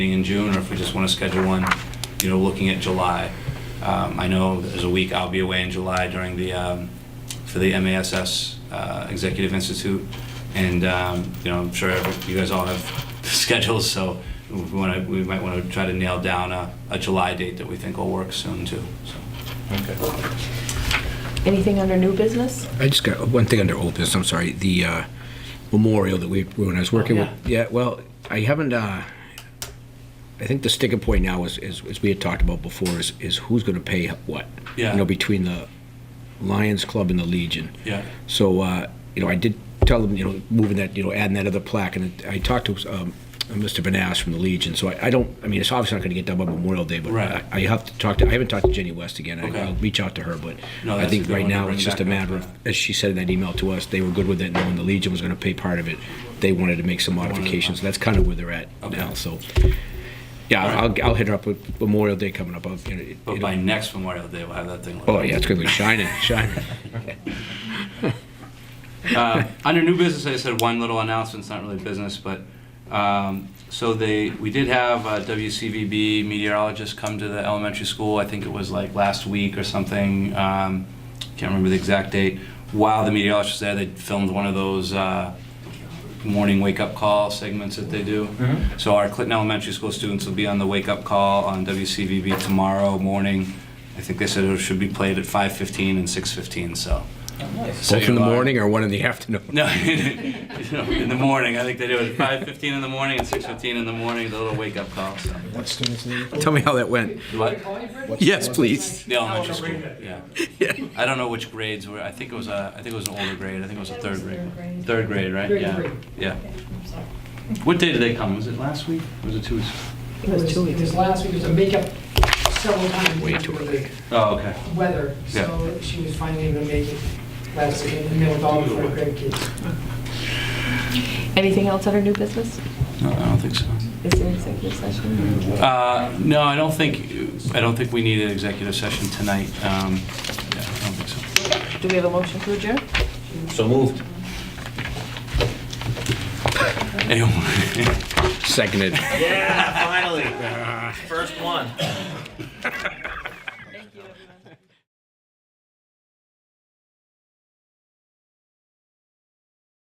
meeting in June, or if we just want to schedule one, you know, looking at July. Um, I know there's a week I'll be away in July during the, um, for the MASS uh, Executive Institute, and, um, you know, I'm sure you guys all have schedules, so we want to, we might want to try to nail down a, a July date that we think will work soon, too, so. Anything under new business? I just got one thing under old business. I'm sorry. The uh, memorial that we when I was working Oh, with. Yeah. Well, I haven't. Uh, I think the sticking point now is, is, as we had talked about before, is, is who's going to pay what. Yeah. You know, between the Lions Club and the Legion. Yeah. So, uh, you know, I did tell them, you know, moving that, you know, adding that other plaque, and I talked to um, Mr. Vanass from the Legion. So I, I don't, I mean, it's obviously not going to get done by Memorial Day, but Right. I, I have to talk to. I haven't talked to Jenny West again. Okay. I, I'll reach out to her, but No, I that's a think good right one to now bring it's just a back up. matter of, as she said in that email to us, they were good with it, knowing the Legion was going to pay part of it. They wanted to make some modifications. That's kind of where they're at Okay. now. So, yeah, All right. I'll, I'll hit her up with Memorial Day coming up. I'll, you know, But you by know, next Memorial Day, we'll have that thing. oh yeah, it's going to be shining, shining. Uh, Under new business, I just had one little announcement, it's not really business, but, um, so they, we did have uh, WCVB meteorologist come to the elementary school, I think it was like last week or something, um, can't remember the exact date. While the meteorologist was there, they filmed one of those uh, morning wake-up call segments that they do. So our Clinton Elementary School students will be on the wake-up call on WCVB tomorrow morning. I think they said it should be played at 5:15 and 6:15, so. So Both in the you'll, uh, morning or one in the afternoon. no, you know, in the morning. I think they do it at five fifteen in the morning and six fifteen in the morning. The little wake up call. So. What students in the Tell me how that went. What? Yes, please. The elementary school. Yeah. I don't know which grades were. I think it was a. I think it was an older grade. I think it was a third grade. one. Third grade, right? Third yeah. grade. Yeah. What day did they come? Was it last week? Was it two weeks? It was two It weeks. was last week, it was a makeup several times. Way due too to early. Oh, okay. the Weather, so she was finally able to make it last week, and then with all of her grandkids. Anything else under new business? No, I don't think so. Is there executive session? Uh, no, I don't think. I don't think we need an executive session tonight. Um, yeah, I don't think so. Do we have a motion to adjourn? Anyone? Seconded. Yeah, finally. First one.